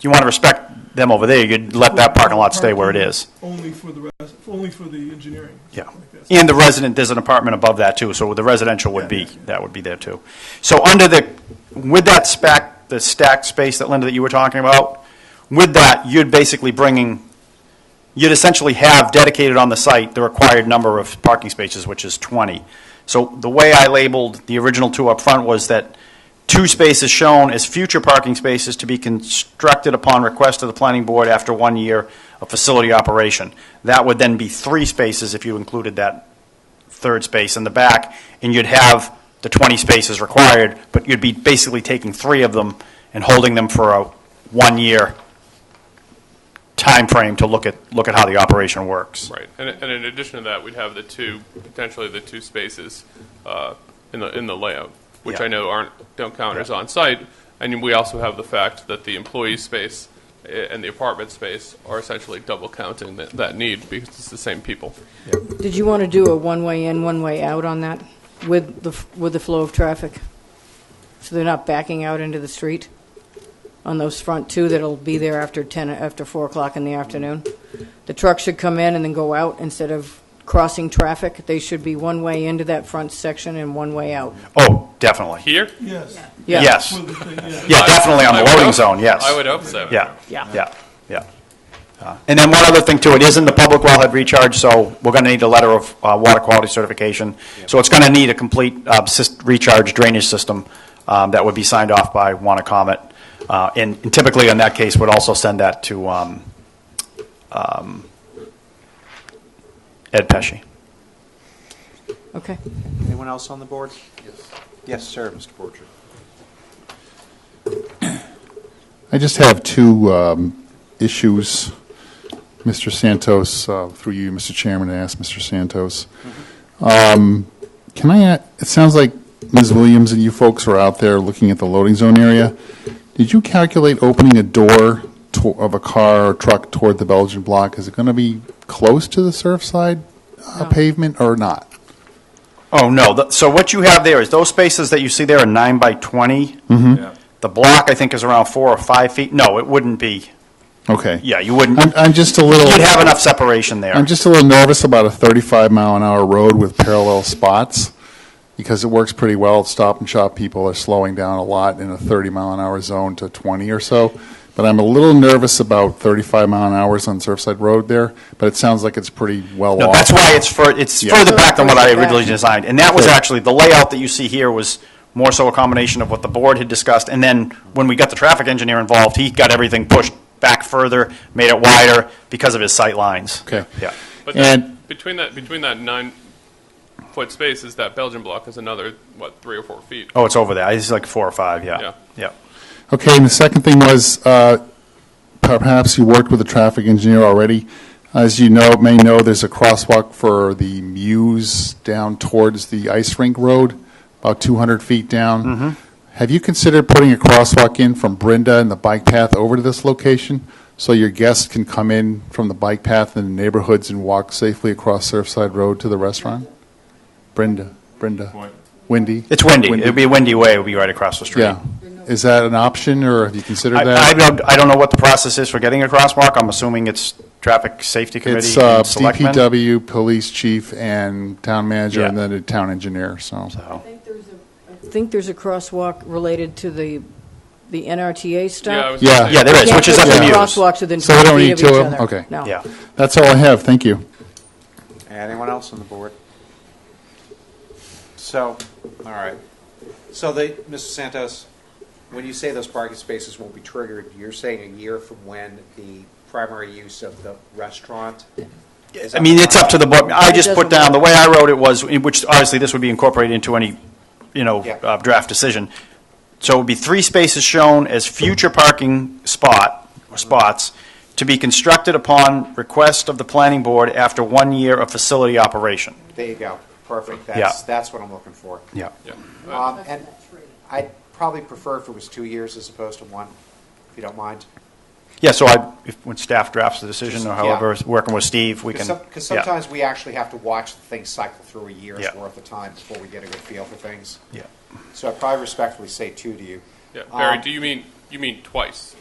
you want to respect them over there, you could let that parking lot stay where it is. Only for the, res- only for the engineering. Yeah. Like this. And the resident, there's an apartment above that too, so the residential would be, that would be there too. So under the, with that spec, the stacked space that Linda, that you were talking about, with that, you'd basically bringing, you'd essentially have dedicated on the site the required number of parking spaces, which is 20. So the way I labeled the original two up front was that two spaces shown as future parking spaces to be constructed upon request of the planning board after one year of facility operation. That would then be three spaces if you included that third space in the back, and you'd have the 20 spaces required, but you'd be basically taking three of them and holding them for a one-year time frame to look at, look at how the operation works. Right, and, and in addition to that, we'd have the two, potentially the two spaces uh, in the, in the layout, which Yeah. I know aren't, don't count as on-site, and we also have the fact that the employee space i- and the apartment space are essentially double counting that, that need, because it's the same people. Did you want to do a one-way in, one-way out on that with the, f- with the flow of traffic? So they're not backing out into the street on those front two that'll be there after 10, after 4 o'clock in the afternoon? The truck should come in and then go out instead of crossing traffic. They should be one-way into that front section and one-way out. Oh, definitely. Here? Yes. Yeah. Yes. For the thing, yeah. Yeah, definitely on I the would loading hope- zone, yes. I would hope so. Yeah. Yeah. Yeah, yeah. Uh, And then one other thing too, it is in the public wellhead recharge, so we're going to need a letter of uh, water quality certification. So it's going to need a complete uh, sys- recharge drainage system um, that would be signed off by Comet. Uh And and typically in that case, would also send that to um, um, Ed Pesci. Okay. Anyone else on the board? Yes. Yes, sir, Mr. Borcher. I just have two um, issues, Mr. Santos, uh, through you, Mr. Chairman, and ask Mr. Santos. Um, Can I, a- it sounds like Ms. Williams and you folks were out there looking at the loading zone area. Did you calculate opening a door to- of a car or truck toward the Belgian block? Is it going to be close to the Surfside uh, pavement or not? Oh, no, The- so what you have there is those spaces that you see there are nine by 20. The block, I think, is around four or five feet. No, it wouldn't be, Okay. yeah, you wouldn't. I'm I'm just a little. You'd have enough separation there. I'm just a little nervous about a 35 mile an hour road with parallel spots because it works pretty well. Stop and shop people are slowing down a lot in a 30 mile an hour zone to 20 or so. But I'm a little nervous about 35 mile an hours on Surfside Road there. But it sounds like it's pretty well No, off. that's why it's fur, it's Yeah. further back than what I Further back. originally designed. And that was Good. actually, the layout that you see here was more so a combination of what the board had discussed. And then when we got the traffic engineer involved, he got everything pushed back further, made it wider because of his sight lines. Okay. Yeah. But And that, between that, between that nine-foot space is that Belgian block is another, what, three or four feet? Oh, it's over there. It's like four or five, Yeah. yeah. Yeah. Okay, and the second thing was, uh, perhaps you worked with a traffic engineer already. As you know, may know, there's a crosswalk for the Muse down towards the ice rink road, about 200 feet down. Have you considered putting a crosswalk in from Brenda and the bike path over to this location? So your guests can come in from the bike path in the neighborhoods and walk safely across Surfside Road to the restaurant? Brenda, Brenda, Wendy? It's windy. It'd be a windy way. It'd be right across the street. Yeah. Is that an option, or have you considered I, that? I don't, I don't know what the process is for getting a crosswalk. I'm assuming it's traffic safety It's committee uh, and selectmen. DPW, police chief, and town manager, and Yeah. then a town engineer, so. So, I think there's a crosswalk related to the, the NRTA stop. Yeah, I was Yeah. gonna say- Yeah, there is, which is at Can't the put Muse. the Crosswalks within So we 20 don't feet need of each two of other. them? Okay. No. Yeah. That's all I have, thank you. Anyone else on the board? So, all right. So they, Mr. Santos, when you say those parking spaces won't be triggered, you're saying a year from when the primary use of the restaurant? I mean, it's up to the board. I just put doesn't down, the way I wrote it was, in which obviously this would be incorporated into any, you know, Yeah. uh, draft decision. So it would be three spaces shown as future parking spot, or spots, to be constructed upon request of the planning board after one year of facility operation. There you go, perfect, that's, Yeah. that's what I'm looking for. Yeah. Yeah. Um, And I'd probably prefer if it was two years as opposed to one, if you don't mind. Yeah, so I, if, when staff drafts the decision, or Just- however, working with Steve, we can. Because yeah. sometimes we actually have to watch the thing cycle through a year's Yeah. worth of time before we get a good feel for things. Yeah. So I probably respectfully say two to you. Yeah, Barry, Um, do you mean, you mean twice?